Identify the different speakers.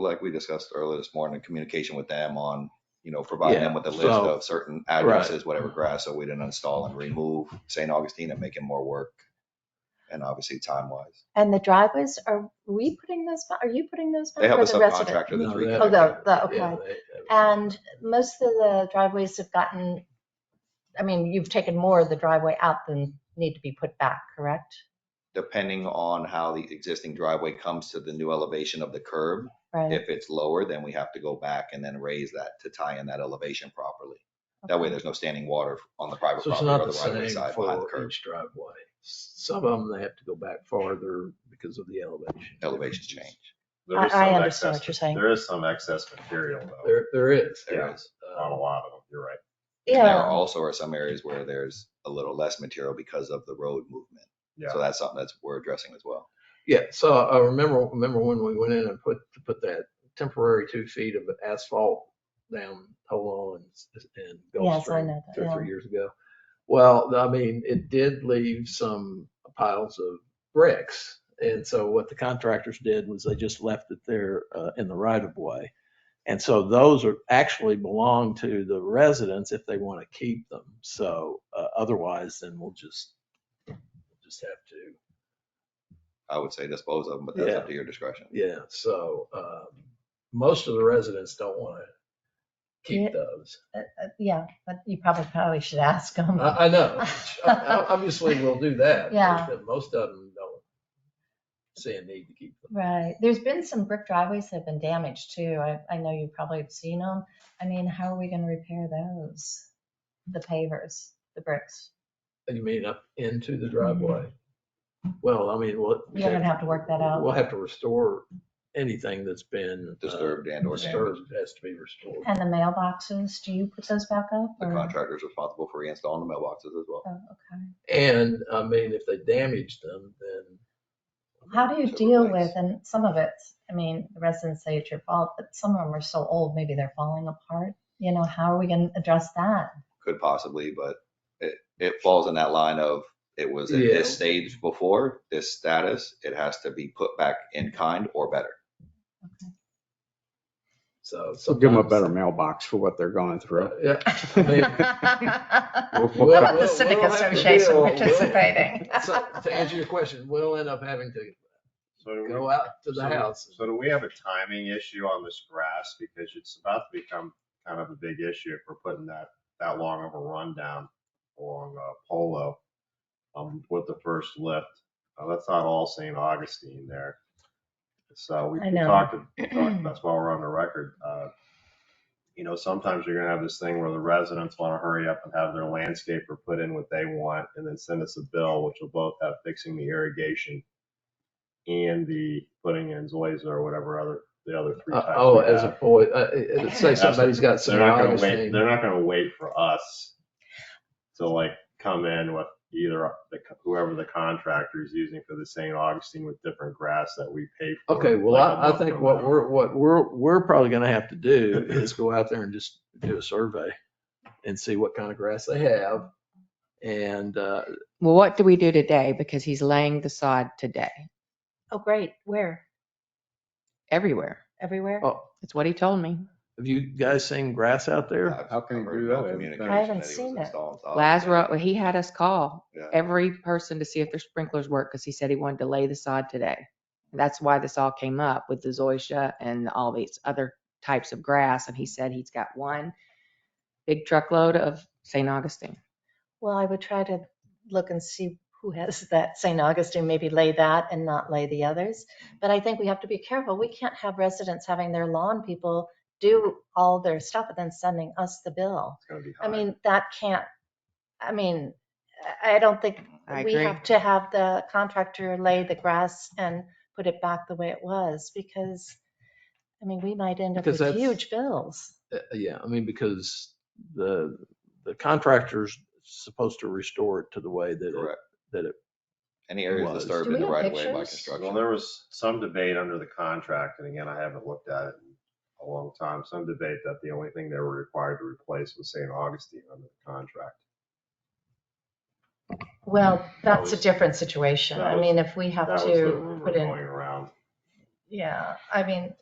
Speaker 1: like we discussed earlier this morning, communication with them on, you know, providing them
Speaker 2: Yeah,
Speaker 1: with a list
Speaker 2: so-
Speaker 1: of certain addresses, whatever grass, so we didn't install and remove St. Augustine and making more work. And obviously time wise,
Speaker 3: And the driveways, are we putting those, ba- are you putting those back?
Speaker 1: they have
Speaker 3: or
Speaker 1: a
Speaker 3: the resident?
Speaker 1: subcontractor that's
Speaker 2: No, they-
Speaker 3: Oh, the,
Speaker 1: reconnected.
Speaker 3: the,
Speaker 2: Yeah,
Speaker 3: okay.
Speaker 2: they-
Speaker 3: And most of the driveways have gotten, I mean, you've taken more of the driveway out than need to be put back, correct?
Speaker 1: Depending on how the existing driveway comes to the new elevation of the curb,
Speaker 3: Right?
Speaker 1: if it's lower, then we have to go back and then raise that to tie in that elevation properly. That way,
Speaker 3: Okay.
Speaker 1: there's no standing water on the private
Speaker 2: So it's
Speaker 1: property
Speaker 2: not
Speaker 1: or
Speaker 2: the
Speaker 1: the right-of-way
Speaker 2: same
Speaker 1: side behind the
Speaker 2: for
Speaker 1: curb.
Speaker 2: each driveway. Some of them, they have to go back farther because of the elevation.
Speaker 1: Elevations change.
Speaker 4: There
Speaker 3: I- I
Speaker 4: is some
Speaker 3: understand what
Speaker 4: excess-
Speaker 3: you're saying.
Speaker 4: There is some excess material though,
Speaker 2: There, there is.
Speaker 1: There
Speaker 4: Yeah.
Speaker 1: is.
Speaker 4: on a
Speaker 2: Uh,
Speaker 4: lot of them, you're right.
Speaker 1: And There are
Speaker 3: Yeah.
Speaker 1: also are some areas where there's a little less material because of the road movement. So
Speaker 4: Yeah,
Speaker 1: that's something that's we're addressing as well.
Speaker 2: Yeah, so I remember, remember when we went in and put, to put that temporary two feet of asphalt down Hole and, and
Speaker 3: Yes, I
Speaker 2: Gulfstream
Speaker 3: know
Speaker 2: two or
Speaker 3: that, yeah.
Speaker 2: three years ago. Well, I mean, it did leave some piles of bricks. And so what the contractors did was they just left it there uh, in the right of way. And so those are actually belong to the residents if they want to keep them. So uh, otherwise, then we'll just, just have to
Speaker 1: I would say dispose of them, but that's up
Speaker 2: Yeah.
Speaker 1: to your discretion.
Speaker 2: Yeah, so um, most of the residents don't want to
Speaker 3: Yeah.
Speaker 2: keep those.
Speaker 3: Uh, uh, Yeah, but you probably, probably should ask them.
Speaker 1: Uh.
Speaker 2: I, I know. which o- o- Obviously, we'll do that.
Speaker 3: Yeah.
Speaker 2: but Most of them don't see a need to keep them.
Speaker 3: Right. There's been some brick driveways that have been damaged too. I, I know you probably have seen them. I mean, how are we going to repair those? The pavers, the bricks.
Speaker 2: You mean up into the driveway? Well, I mean, we'll.
Speaker 3: Mm-hmm. You're going to have to work that out.
Speaker 2: We'll have to restore anything that's been. uh,
Speaker 1: Disturbed and or damaged.
Speaker 2: Disturbed has to be restored.
Speaker 3: And the mailboxes, do you put those back up?
Speaker 1: The
Speaker 3: or-
Speaker 1: contractor's responsible for reinstalling the mailboxes as well.
Speaker 3: Oh, okay.
Speaker 2: And I mean, if they damage them, then.
Speaker 3: How do you
Speaker 1: So
Speaker 3: deal
Speaker 1: replace.
Speaker 3: with, and some of it, I mean, the residents say it's your fault, but some of them are so old, maybe they're falling apart. You know, how are we going to address that?
Speaker 1: could possibly, but it, it falls in that line of it was at
Speaker 2: Yeah.
Speaker 1: this stage before, this status, it has to be put back in kind or better.
Speaker 2: So.
Speaker 5: So give them a
Speaker 2: sometimes-
Speaker 5: better mailbox for what they're going through.
Speaker 2: Yeah. I mean,
Speaker 5: We'll-
Speaker 3: How
Speaker 5: we'll
Speaker 2: Well,
Speaker 5: cut-
Speaker 3: about the civic
Speaker 2: we'll have to
Speaker 3: association
Speaker 2: deal- we'll-
Speaker 3: participating?
Speaker 2: So, to answer your question, we'll end up having to
Speaker 4: so do we,
Speaker 2: go out to the
Speaker 4: so-
Speaker 2: house.
Speaker 4: so do we have a timing issue on this grass? Because it's about to become kind of a big issue if we're putting that, that long of a run down along uh, Polo um, with the first lift. Uh, That's not all St. Augustine there. So we
Speaker 3: I
Speaker 4: we
Speaker 3: know.
Speaker 4: talked, we talked- that's why we're on the record. uh, You know, sometimes you're gonna have this thing where the residents wanna hurry up and have their landscaper put in what they want and then send us a bill, which will both have fixing the irrigation and the putting in Zoysia or whatever other, the other three
Speaker 2: Uh,
Speaker 4: types.
Speaker 2: Oh,
Speaker 4: we
Speaker 2: as a
Speaker 4: have.
Speaker 2: boy, uh, uh, say somebody's got
Speaker 4: They're
Speaker 2: some
Speaker 4: not gonna wait,
Speaker 2: Augustine.
Speaker 4: they're not gonna wait for us to like come in with either the co- whoever the contractor is using for the St. Augustine with different grass that we pay for.
Speaker 2: Okay, well,
Speaker 4: like a
Speaker 2: I, I
Speaker 4: month
Speaker 2: think
Speaker 4: from
Speaker 2: what
Speaker 4: now.
Speaker 2: we're, what we're, we're probably gonna have to do is go out there and just do a survey and see what kind of grass they have. And, uh,
Speaker 6: Well, what do we do today? Because he's laying the sod today,
Speaker 3: Oh, great. Where?
Speaker 6: everywhere.
Speaker 3: Everywhere?
Speaker 2: oh,
Speaker 6: That's what he told me.
Speaker 2: have you guys seen grass out there?
Speaker 1: I've-
Speaker 5: How can
Speaker 1: I've
Speaker 5: you
Speaker 1: heard
Speaker 5: do
Speaker 1: no
Speaker 5: that?
Speaker 1: communication
Speaker 3: I haven't
Speaker 1: that he was
Speaker 3: seen it.
Speaker 1: installing, so I don't know.
Speaker 6: Lazaro, he had us call
Speaker 1: Yeah.
Speaker 6: every person to see if their sprinklers worked because he said he wanted to lay the sod today. That's why this all came up with the zoysia and all these other types of grass. And he said he's got one big truckload of St. Augustine.
Speaker 3: Well, I would try to look and see who has that St. Augustine, maybe lay that and not lay the others. But I think we have to be careful. We can't have residents having their lawn people do all their stuff and then sending us the bill.
Speaker 4: It's gonna be
Speaker 3: I
Speaker 4: high.
Speaker 3: mean, that can't, I mean, I I don't think
Speaker 6: I
Speaker 3: we
Speaker 6: agree.
Speaker 3: have to have the contractor lay the grass and put it back the way it was because, I mean, we might end up
Speaker 2: Because
Speaker 3: with
Speaker 2: that's-
Speaker 3: huge bills.
Speaker 2: Uh, Yeah, I mean, because the, the contractor's supposed to restore it to the way that it
Speaker 1: Correct.
Speaker 2: that it-
Speaker 1: Any areas
Speaker 2: was.
Speaker 1: disturbed
Speaker 3: Do we
Speaker 1: in the
Speaker 3: have
Speaker 1: right of way by
Speaker 3: pictures?
Speaker 4: Well,
Speaker 1: construction.
Speaker 4: there was some debate under the contract, and again, I haven't looked at it in a long time, some debate that the only thing they were required to replace was St. Augustine under the contract.
Speaker 3: Well, that's a
Speaker 4: was-
Speaker 3: different situation.
Speaker 4: that
Speaker 3: I
Speaker 4: was-
Speaker 3: mean, if we have
Speaker 4: That was the
Speaker 3: to
Speaker 4: rumor
Speaker 3: put
Speaker 4: going
Speaker 3: in,
Speaker 4: around.
Speaker 3: yeah, I mean,